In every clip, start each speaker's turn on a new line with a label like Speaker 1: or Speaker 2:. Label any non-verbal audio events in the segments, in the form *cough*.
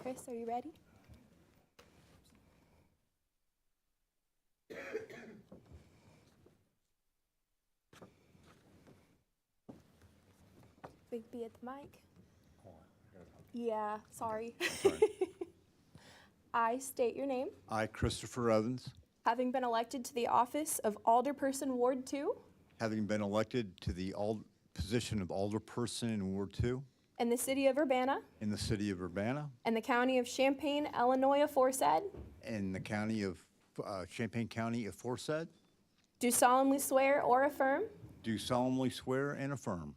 Speaker 1: Chris, are you ready? Big B at the mic. Yeah, sorry. *laughs* I state your name,
Speaker 2: I, Christopher Evans,
Speaker 1: having been elected to the office of Alderperson Ward Two
Speaker 2: having been elected to the ald- position of alderperson in Ward Two
Speaker 1: in the city of Urbana
Speaker 2: in the city of Urbana
Speaker 1: and the county of Champaign, Illinois aforesaid,
Speaker 2: and the county of, uh, Champaign County aforesaid,
Speaker 1: do solemnly swear or affirm
Speaker 2: do solemnly swear and affirm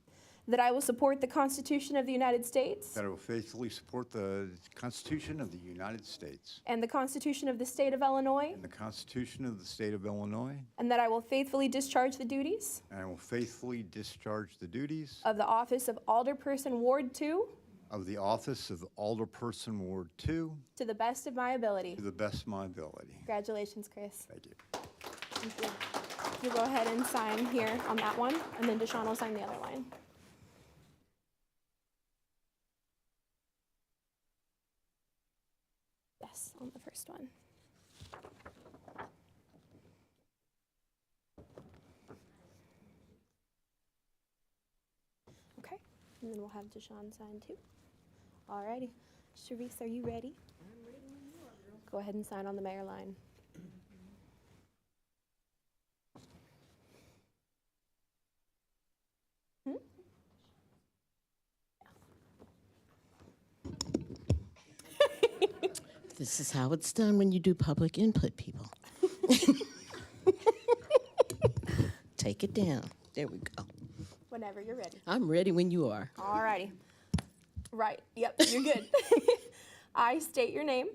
Speaker 1: that I will support the Constitution of the United States
Speaker 2: that I will faithfully support the Constitution of the United States
Speaker 1: and the Constitution of the State of Illinois,
Speaker 2: and the Constitution of the state of Illinois,
Speaker 1: and that I will faithfully discharge the duties
Speaker 2: and I will faithfully discharge the duties
Speaker 1: of the office of Alderperson Ward Two
Speaker 2: of the office of alderperson Ward Two
Speaker 1: to the best of my ability.
Speaker 2: to the best of my ability.
Speaker 1: Congratulations, Chris.
Speaker 2: Thank you.
Speaker 1: Thank you. You go ahead and sign here on that one, and then Deshawn will sign the other line. Yes, on the first one. Okay, and then we'll have Deshawn sign too. Alrighty. Sharice, are you ready? Go ahead and sign on the mayor line.
Speaker 3: This is how it's done when you do public input, people. Take it down. There we go.
Speaker 1: Whenever you're ready.
Speaker 3: I'm ready when you are.
Speaker 1: Alrighty. Right. Yep, you're good. I state your name,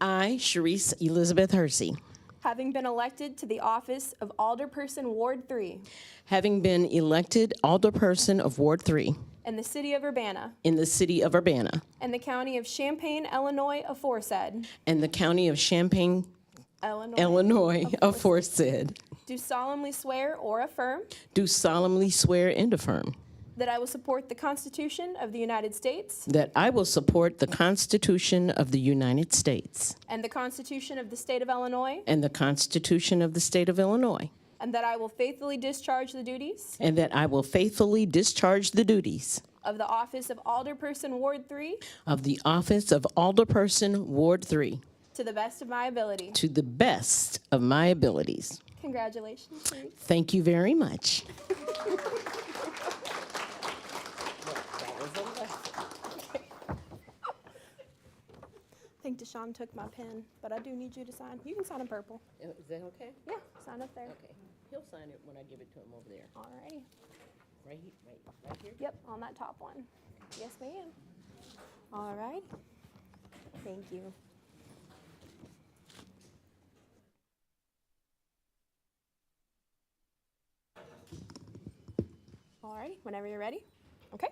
Speaker 3: I, Sharice Elizabeth Hersey,
Speaker 1: having been elected to the office of Alderperson Ward 3
Speaker 3: having been elected alderperson of Ward 3
Speaker 1: in the city of Urbana
Speaker 3: in the city of Urbana
Speaker 1: and the county of Champaign, Illinois, aforesaid,
Speaker 3: and the county of Champaign,
Speaker 1: Illinois,
Speaker 3: Illinois, *laughs* aforesaid,
Speaker 1: do solemnly swear or affirm
Speaker 3: do solemnly swear and affirm
Speaker 1: that I will support the Constitution of the United States
Speaker 3: that I will support the Constitution of the United States
Speaker 1: and the Constitution of the state of Illinois,
Speaker 3: and the Constitution of the state of Illinois.
Speaker 1: and that I will faithfully discharge the duties
Speaker 3: And that I will faithfully discharge the duties
Speaker 1: of the office of Alderperson Ward 3
Speaker 3: of the office of Alderperson, Ward 3,
Speaker 1: to the best of my ability.
Speaker 3: to the best of my abilities.
Speaker 1: Congratulations, Sharice.
Speaker 3: Thank you very much.
Speaker 1: I think Deshawn took my pen, but I do need you to sign. You can sign in purple.
Speaker 3: Is that okay?
Speaker 1: Yeah, sign up there.
Speaker 3: Okay. He'll sign it when I give it to him over there.
Speaker 1: Alrighty.
Speaker 3: Right here, right, right here?
Speaker 1: Yep, on that top one. Yes, ma'am. All right. Thank you. All righty, whenever you're ready. Okay.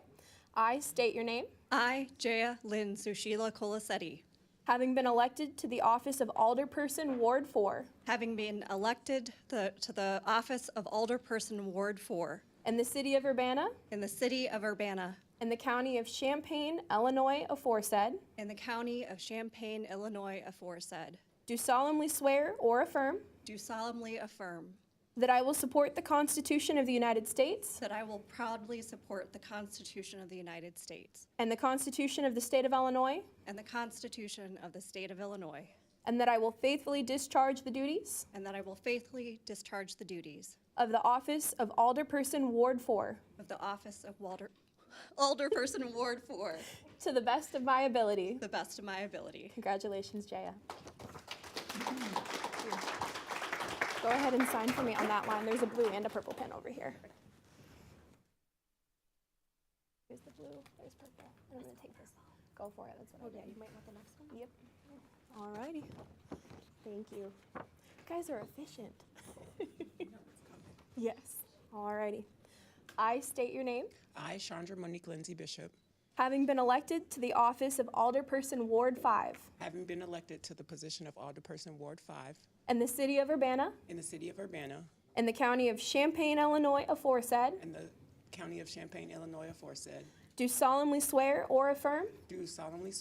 Speaker 1: I state your name,
Speaker 4: I, Jaya Lynn Sushila Colasetti,
Speaker 1: having been elected to the office of Alderperson, Ward 4,
Speaker 4: having been elected the- to the office of Alderperson Ward 4
Speaker 1: in the city of Urbana
Speaker 4: in the city of Urbana
Speaker 1: in the county of Champaign, Illinois, aforesaid,
Speaker 4: in the county of Champaign, Illinois aforesaid,
Speaker 1: do solemnly swear or affirm
Speaker 4: do solemnly affirm
Speaker 1: that I will support the Constitution of the United States
Speaker 4: that I will proudly support the Constitution of the United States
Speaker 1: and the Constitution of the State of Illinois,
Speaker 4: and the Constitution of the state of Illinois,
Speaker 1: and that I will faithfully discharge the duties
Speaker 4: and that I will faithfully discharge the duties
Speaker 1: of the office of Alderperson, Ward 4,
Speaker 4: of the office of Walder- Alderperson Ward 4
Speaker 1: to the best of my ability.
Speaker 4: to the best of my ability.
Speaker 1: Congratulations, Jaya. Go ahead and sign for me on that line. There's a blue and a purple pen over here. Here's the blue, there's purple. And I'm gonna take this. Go for it, that's what I did. you might want the next one? Yep. Alrighty. Thank you. You guys are efficient. *laughs* Yes, alrighty. I state your name,
Speaker 5: I, Chandra Monique Lindsay Bishop,
Speaker 1: having been elected to the office of Alderperson Ward Five
Speaker 5: having been elected to the position of Alderperson Ward 5
Speaker 1: in the city of Urbana,
Speaker 5: in the city of Urbana
Speaker 1: in the county of Champaign, Illinois, aforesaid,
Speaker 5: and the county of Champaign, Illinois aforesaid,
Speaker 1: do solemnly swear or affirm
Speaker 5: do solemnly